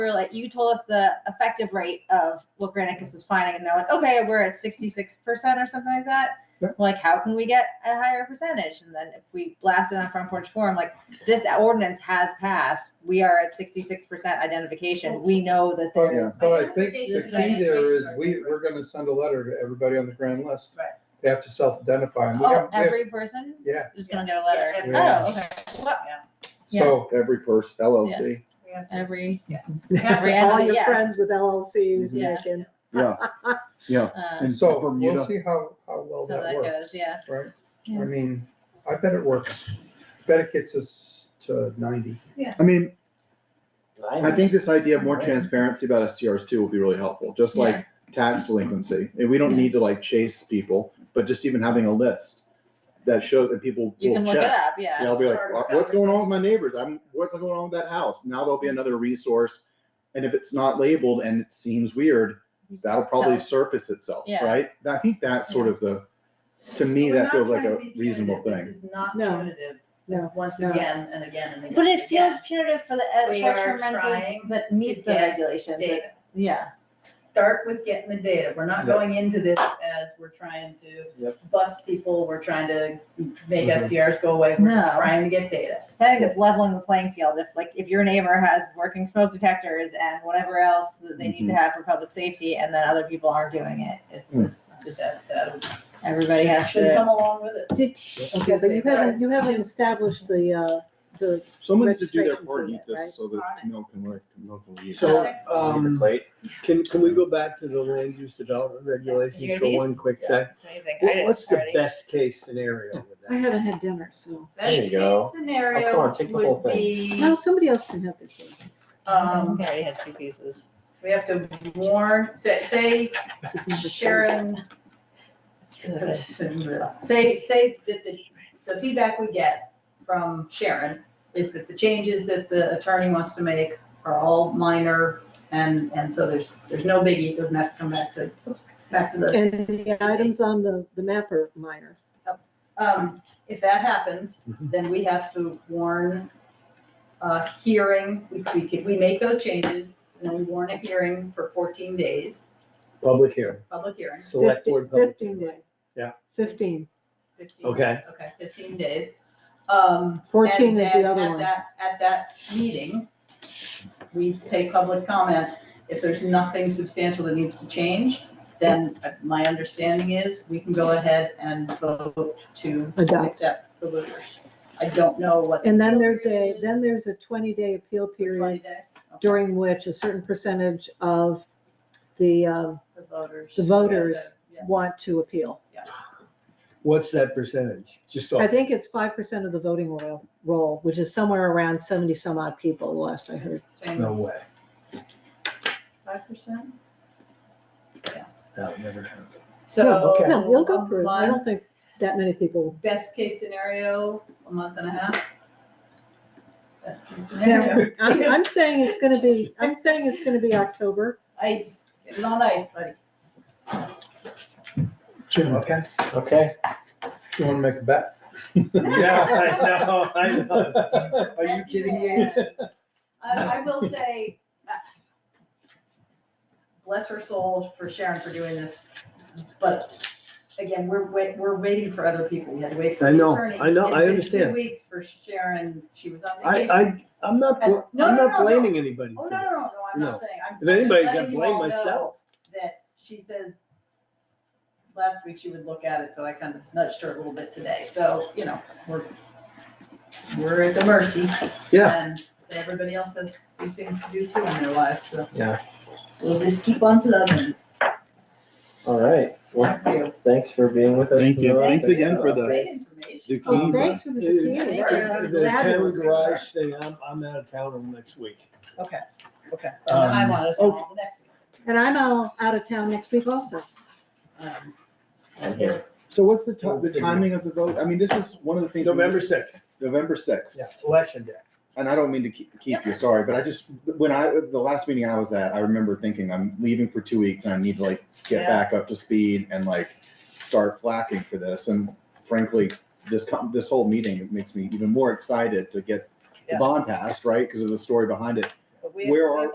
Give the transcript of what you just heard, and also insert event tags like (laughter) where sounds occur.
were like, you told us the effective rate of what Granicus is finding, and they're like, okay, we're at 66% or something like that. Yeah. Like, how can we get a higher percentage? And then if we blast it on Front Porch Forum, like, this ordinance has passed. We are at 66% identification. We know that But, there's. but I think the This is key there is we, we're gonna send a letter to everybody on the grand list. They have to self-identify. and we Oh, have- we have- every person Yeah, is gonna get a letter. Yeah, every- Oh, okay. What- yeah. so, Every person, LLC, (laughs) Every, every, Yeah. All your yes. friends with Mm-hmm. LLCs Yeah. making. yeah, Uh, And so we'll Bermuda. see how, how well how that that goes, works, yeah. right? I Yeah. mean, I bet it works. Bet it gets us to ninety. I mean, I I think this idea of more transparency about STRs too will be really helpful, just like tax delinquency. And we don't Yeah. need to like chase people, but just even having a list that shows that people You will can look it check. up, yeah. Yeah, I'll be like, Part of "What- the what's going on with my neighbors? I'm, what's going on with that house? Now there'll be another resource. And if it's not labeled and it seems weird, You can that'll just probably tell. surface itself, Yeah. right? I think that's sort of the, to me, We're that not feels like trying a to be reasonable punitive. thing. This is not No. punitive, No, once no. again and again and again. But it and feels again. punitive for the uh, We short-term are rentals trying that meet the get regulations. that- Data. Yeah, Start with getting the data. We're not Yeah. going into this as we're trying to Yep. Mm-hmm. bust people, we're trying to make Mhm. SDRs go away, we're No. trying to get data. I think it's leveling the playing field. If like if your neighbor has working smoke detectors and whatever else that they Mm-hmm. need to have for public safety, and then other people aren't doing it, it's Mm. just Just just that, that everybody has should to. come along with it. Did, okay, but you haven't, you haven't established the, uh, the, Someone needs to do their Registration part, fee, eat right? this so that Got it. no can work, no can leave. So, Okay. uh, um, can, can we go back to the land use development Hear regulations for these? one quick sec? It's amazing. I What- did What's the already. best case scenario with I that? haven't had dinner, so. Best There you go. case scenario Oh, come on, take the whole would be, No, somebody else can have this. I um, think I already had two pieces. we have to warn, say, say This is number three. Sharon It's really good. (laughs) Say, say that the, the feedback we get from Sharon is that the changes that the attorney wants to make are all minor and, and so there's, there's no biggie, it doesn't have to come back to, back to the. And the items on the, the map are minor. Um, if that happens, then we have to warn a hearing, we, we could, we make those changes and then we warn a hearing for fourteen days, Public hearing, public hearing, select Fifty- board public. Fifteen day. Yeah. Fifteen. fifteen. Okay, Okay, fifteen days. Um, Fourteen is And the then other at one. that- At that meeting, we take public comment. If there's nothing substantial that needs to change, then uh, my understanding is we can go ahead and vote to Adopt. accept the looters. I don't know what. And then there's a, then there's a twenty day appeal period during which a certain percentage of the, um, The voters. the voters Yeah, want to appeal. what's that percentage? Just off. I think it's five percent of the voting roll, roll, which is somewhere around seventy some odd people, last I yeah. heard. It's the same No as way. Five percent? That never happened. So. um, okay. No, we'll go through. it. I My don't think that many people. best case scenario, a month and a half. Best case scenario. I'm, I'm saying it's (laughs) gonna be, I'm saying it's gonna be October. Ice. Get it on ice, buddy. Jim, Okay. Okay. you wanna make a bet? (laughs) Yeah, I know, I know. Are you kidding me? (laughs) I, I will say, uh, bless her soul for Sharon for doing this, but again, we're, wait- we're waiting for other people. We had to wait for I the know, attorney. I know, It's I been understand. Two weeks for Sharon. She was on I, vacation. I, I'm not, bl- No, no, I'm no, not no. blaming anybody Oh, for no, no, no, this. no, I'm No. not saying. I'm- If I'm just anybody's gonna letting you blame all know myself. That she said last week she would look at it, so I kind of nudged her a little bit today. So, you know, we're, we're at the mercy. Yeah. And everybody else has big things to do too in their lives, so. Yeah. We'll just keep on plugging. All right. Well, Thank you. thanks for being with us. Thank you. tonight. Thanks again for the- Great information. Zucchini, Oh, but- Thanks for the zucchini. Yeah, That yeah. was The town fabulous. garage thing, I'm, I'm out of town all next week. Okay, okay. And Um, I wanted to call the next And I'm all out of town next week also. one. Um, I'm here. So what's the ti- the timing of the vote? I mean, this is one of the things. we- November sixth, November sixth. yeah, election day. And I don't mean to keep, keep you, sorry, but I just, when I, the last meeting I was at, I remember thinking, I'm leaving for two weeks and I need to like get Yeah. back up to speed and like start flacking for this. And frankly, this, com- this whole meeting, it makes me even more excited to get the Yeah. bond passed, right? Because of the story behind it. but we- Where are-